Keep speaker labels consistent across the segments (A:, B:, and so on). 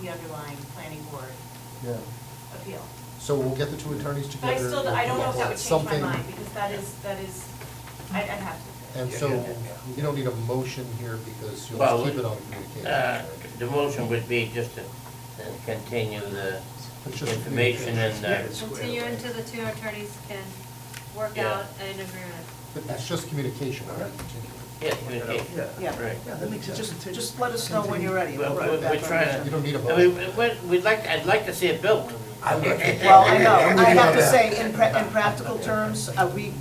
A: the underlying planning board
B: Yeah,
A: appeal.
B: so we'll get the two attorneys
A: But
B: together.
A: I still, I don't know if that would change my
B: Something-
A: mind, because that is, that is, I- I'd have to.
B: And
C: Yeah,
B: so,
C: yeah, yeah.
B: you don't need a motion here because you'll
C: Well,
B: just keep it on
C: Uh,
B: communication.
C: The motion would be just to uh, continue the
B: It's just
C: information and, uh,
B: communication.
D: Continue until the two attorneys can work
C: Yeah.
D: out an agreement.
B: But it's just communication, we're not continuing.
C: yeah, communication.
E: Yeah,
C: Right.
E: yeah, that makes sense.
F: Just, just let us know when you're ready.
C: Well,
F: We'll put
C: we're
F: it back
C: we're
F: on
C: trying
F: the
C: to.
B: You don't need a
C: I mean, we- We'd like, I'd like to see it built.
E: I would.
F: agenda. Well, I know, I have to
B: Yeah.
F: say, in pra- in practical terms, uh, we,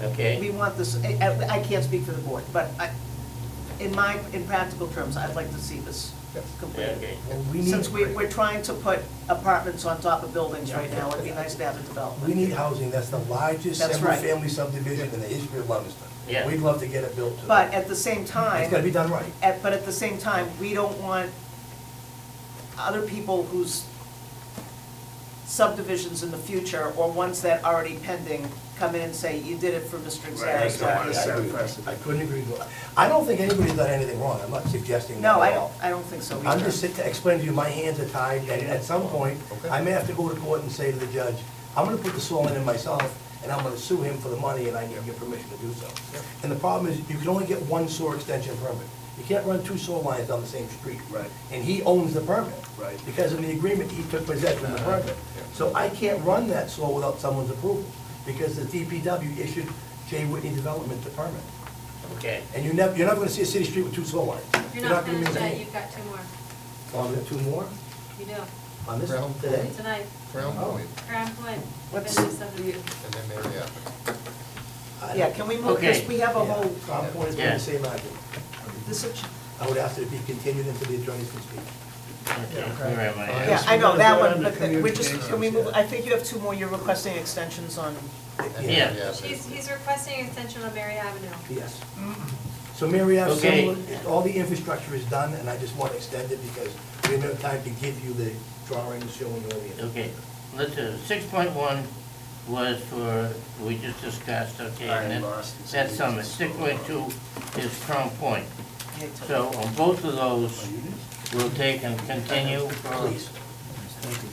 F: we
C: Okay,
F: want this, I, I- I can't speak for the board, but I, in my, in practical terms, I'd like to see this
B: Yes.
F: completed.
C: okay.
E: And we
F: Since we, we're
E: need,
F: trying to put apartments on top of buildings right now, it'd be nice to have a
E: we
F: development.
E: need housing, that's the largest
F: That's right.
E: single-family subdivision in the history of Lummister.
C: Yeah.
E: We'd love to get it built too.
F: But at the same time.
E: It's gotta be done right.
F: At, but at the same time, we don't want other people whose subdivisions in the future, or ones that are already pending, come in and say, you did it for Mr.
G: Right, I don't wanna
F: Xeris.
G: set a
E: I- I-
G: precedent.
E: I couldn't agree more. I don't think anybody's done anything wrong, I'm not suggesting that
F: No, I
E: at
F: don't,
E: all.
F: I don't think so
E: I'm just
F: either.
E: sit- explaining to you, my hands are tied, and at some point,
B: Okay.
E: I may have to go to court and say to the judge, I'm gonna put the soil in myself, and I'm gonna sue him for the money, and I need your permission to do so. And the problem is, you can only get one sewer extension permit. You can't run two sewer lines on the same street.
G: Right.
E: And he owns the permit.
G: Right.
E: Because in the agreement, he took possession of the permit. So I can't run that sewer without someone's approval, because the DPW issued J. Whitney Development the permit.
C: okay.
E: And you never, you're never gonna see a city street with two sewer lines.
D: You're not finished
E: maintain
D: yet,
E: it.
D: you've got two more.
E: Oh, we have two more
D: You do.
E: on this
B: Brown.
E: today?
D: Tonight,
B: Crown Point,
D: Crown Point,
F: What's
D: business subdivision.
B: and then Mary Ave.
E: I
F: Yeah,
E: don't-
F: can we move, because
C: Okay.
F: we have a
E: Yeah,
F: whole,
E: Crown Point is
C: Yeah.
E: the same argument.
F: this, is-
E: I would ask that it be continued until the attorneys can speak.
C: Okay, where am I?
F: yeah, I know,
G: we're
F: that
G: gonna
F: one,
G: go
F: but
G: under
F: the- we're just, can we move,
G: communications,
F: I think you have two more, you're requesting extensions on,
B: and
C: Yeah.
B: Mary Ave.
D: He's, he's requesting extension on Mary Avenue.
E: Yes. So Mary Ave,
C: Okay.
E: Summerlin, all the infrastructure is done, and I just want to extend it because we have no time to give you the drawings showing all the.
C: Okay, let's, six point one was for, we just discussed, okay, and
G: I
C: then
G: lost it.
C: that's summit. Six point two is Crown Point.
F: yeah, to-
C: So on both of those, we'll take and continue for,
E: Please.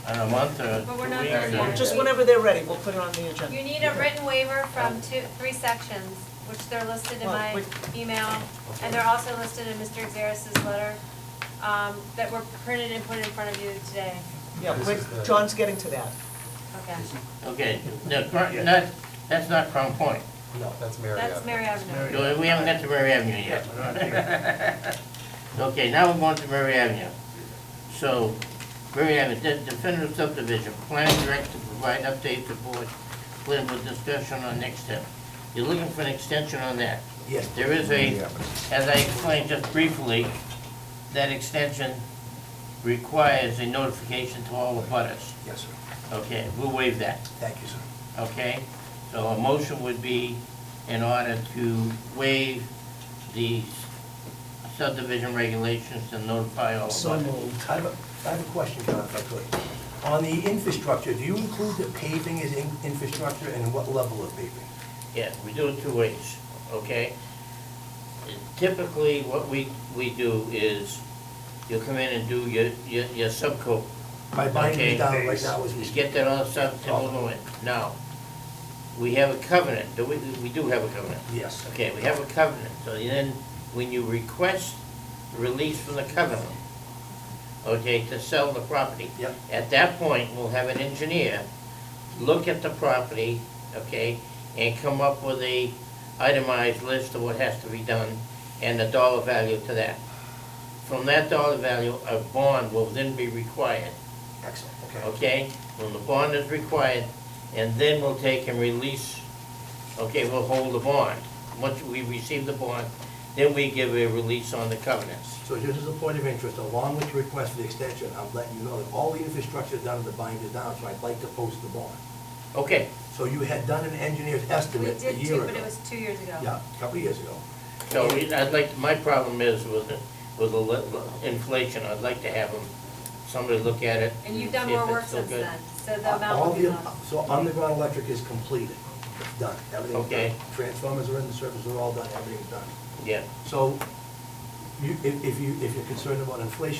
C: on a month or
D: But
C: two
D: we're not
C: weeks
D: there
C: or-
D: yet.
F: just whenever they're ready, we'll put it on the agenda.
D: You need a written waiver from two, three sections, which they're listed in
F: Well,
D: my
F: which-
D: email, and they're also listed in Mr. Xeris's letter, um, that were printed and put in front of you today.
F: Yeah,
B: This
F: we're-
B: is the-
F: John's getting to that.
D: Okay,
C: Okay, no, Cro- not, that's not Crown Point.
E: No.
B: That's Mary Ave.
D: that's Mary Avenue.
C: No, We haven't got to Murray Avenue yet. Okay, now we're going to Murray Avenue. So, Murray Avenue, de- definitive subdivision, plan direct to provide update to board, plan with discussion on next step. You're looking for an extension on that.
E: Yes.
C: There is a, as I explained just briefly, that extension requires a notification to all the butters.
E: Yes, sir.
C: Okay, we'll waive that.
E: Thank you, sir.
C: Okay, so a motion would be in order to waive these subdivision regulations and notify all of
E: So I
C: us.
E: have a, I have a question, John, if I could. On the infrastructure, do you include that paving is in- infrastructure and what level of paving?
C: Yeah, we do it two ways, okay? Typically, what we, we do is, you come in and do your, your, your subcoat.
E: My binder
C: Okay.
E: is down right now as we
C: Just
E: speak.
C: get that all stuff to move it. Now, we have a covenant, do we, we do have a covenant.
E: Yes.
C: Okay, we have a covenant, so then, when you request release from the covenant, okay, to sell the property.
E: Yep.
C: At that point, we'll have an engineer look at the property, okay, and come up with a itemized list of what has to be done and the dollar value to that. From that dollar value, a bond will then be required,
E: Excellent, okay.
C: okay? When the bond is required, and then we'll take and release, okay, we'll hold the bond. Once we receive the bond, then we give a release on the covenants.
E: So just as a point of interest, along with your request for the extension, I'm letting you know that all the infrastructure down at the bind is down, so I'd like to post the bond.
C: Okay,
E: So you had done an engineer's
D: We
E: estimate a
D: did
E: year
D: two,
E: ago.
D: but it was two years ago.
E: Yeah, a couple of years ago.
C: so we- I'd like, my problem is with, the- with the li- inflation, I'd like to have them, somebody look at it.
D: And you've done
C: see if
D: more
C: it's
D: work
C: still
D: since
C: good.
D: then, so the amount
E: All
D: will be
E: the,
D: low.
E: so underground electric is completed, it's done, everything's done.
C: Okay.
E: Transformers are in the service, they're all done, everything's done.
C: Yeah.
E: So you, if, if you, if you're concerned about inflation,